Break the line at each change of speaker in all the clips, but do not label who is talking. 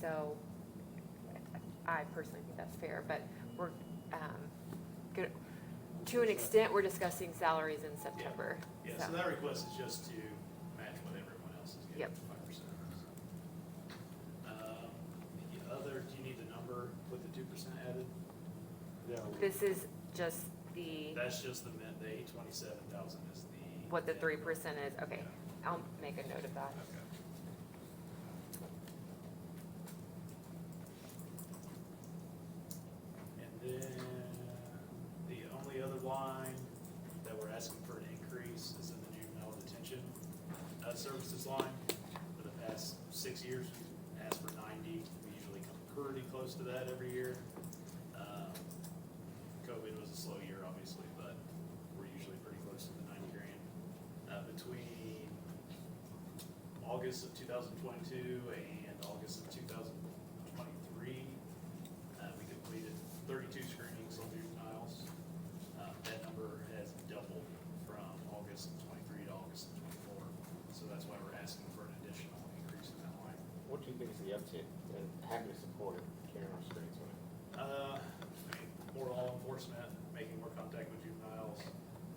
So I personally think that's fair, but we're, um, good, to an extent, we're discussing salaries in September.
Yeah, so that request is just to match what everyone else is getting,
Yep.
five percent. Um, The other, do you need the number with the two percent added?
This is just the,
That's just the min, the eight twenty-seven thousand is the.
what the three percent is, okay, I'll make a note of that.
Okay. And then the only other line that we're asking for an increase is in the juvenile detention uh, services line. For the past six years, we've asked for ninety, we usually come pretty close to that every year. Um, COVID was a slow year, obviously, but we're usually pretty close to the ninety grand. Uh, Between August of 2022 and August of 2023. Uh, we completed 32 screenings on juveniles. Uh, that number has doubled from August of 23 to August of 24. So that's why we're asking for an additional increase in that line.
What do you think is the uptick and how can it support carrying our streets on it?
Uh, I mean, more law enforcement, making more contact with juveniles,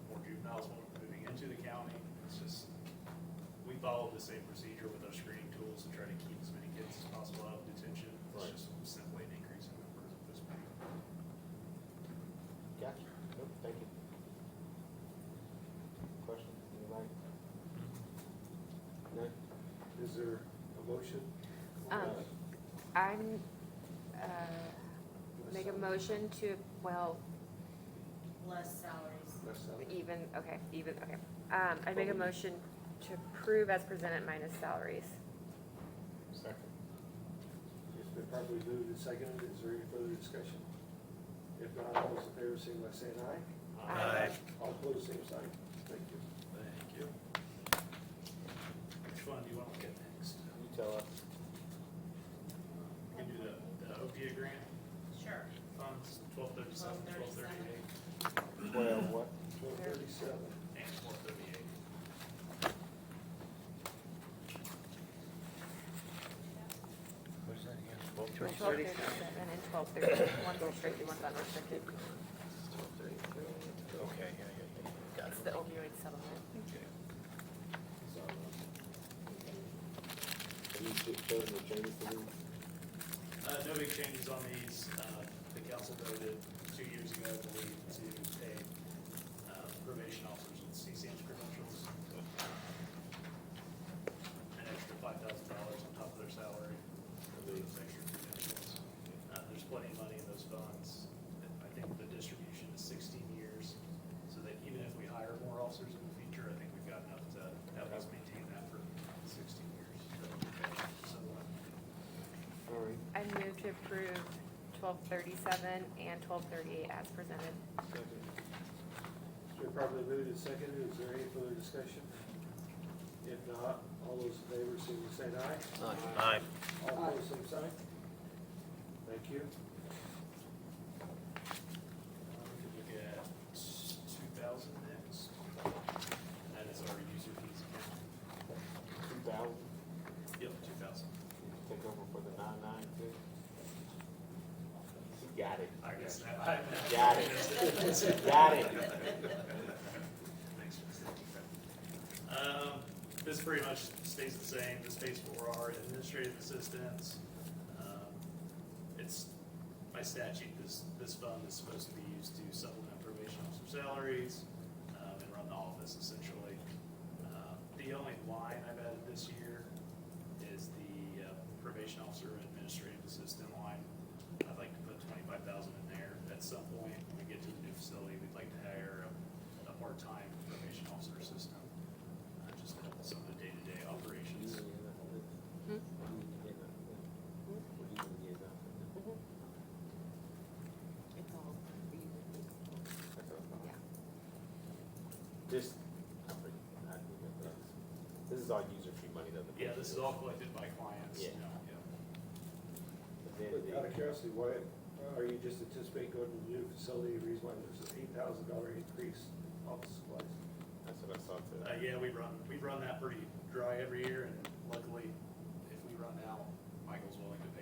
more juveniles moving into the county. It's just, we follow the same procedure with our screening tools to try to keep as many kids as possible out of detention. It's
Right.
just simply an increase in numbers at this point.
Got you. Nope, thank you. Questions, anybody? No?
Is there a motion?
Um,
Uh,
I'm, uh, make a motion to, well,
less salaries.
Less salary.
even, okay, even, okay. Um, I make a motion to approve as presented minus salaries.
Second.
It's been properly moved and seconded. Is there any further discussion? If not, all those in favor, signify by saying aye.
Aye.
All opposed, same sign. Thank you.
Thank you. Which one do you want to look at next?
You tell us.
We can do the, the OPIA grant
Sure.
funds, twelve thirty-seven, twelve thirty-eight,
Twelve what?
Twelve thirty-seven.
and twelve thirty-eight.
Twelve thirty-seven and twelve thirty, one's restricted, one's unrestricted.
Okay, yeah, yeah, yeah, got
It's the opioid settlement.
Have you just chosen to change the rules?
Uh, no big changes on these. Uh, the council voted two years ago, I believe, to pay uh, probation officers with CCM's credentials. An extra five thousand dollars on top of their salary for those extra credentials. Uh, there's plenty of money in those funds. I think the distribution is sixteen years, so that even if we hire more officers in the future, I think we've got enough to help us maintain that for sixteen years. So, uh,
All right.
I move to approve twelve thirty-seven and twelve thirty-eight as presented.
Second. It's been properly moved and seconded. Is there any further discussion? If not, all those in favor, signify by saying aye.
Aye.
All opposed, same sign. Thank you.
Um, we could look at two thousand next. That is our user fees account.
Two thousand,
Yep, two thousand.
take over for the nine nine two? You got it.
I guess that. I-
Got it. Got it.
Thanks, Justin. Um, this pretty much stays the same, this pays for our administrative assistants. Um, It's, by statute, this, this fund is supposed to be used to supplement probation officer salaries, um, and run the office essentially. Um, The only line I've added this year is the uh, probation officer administrative assistant line. I'd like to put twenty-five thousand in there. At some point, when we get to the new facility, we'd like to hire a, a part-time probation officer assistant. uh, Just to help with some of the day-to-day operations.
Hmm? It's all. Yeah.
This, I think, I agree with that. This is all user fee money though. the-
Yeah, this is all collected by clients, you
Yeah.
know, yeah.
But then the-
Out of curiosity, why, are you just anticipating going to the new facility, the reason why there's an eight thousand dollar increase in office supplies?
That's what I saw today.
Uh, yeah, we run, we run that pretty dry every year, and luckily, if we run out, Michael's willing to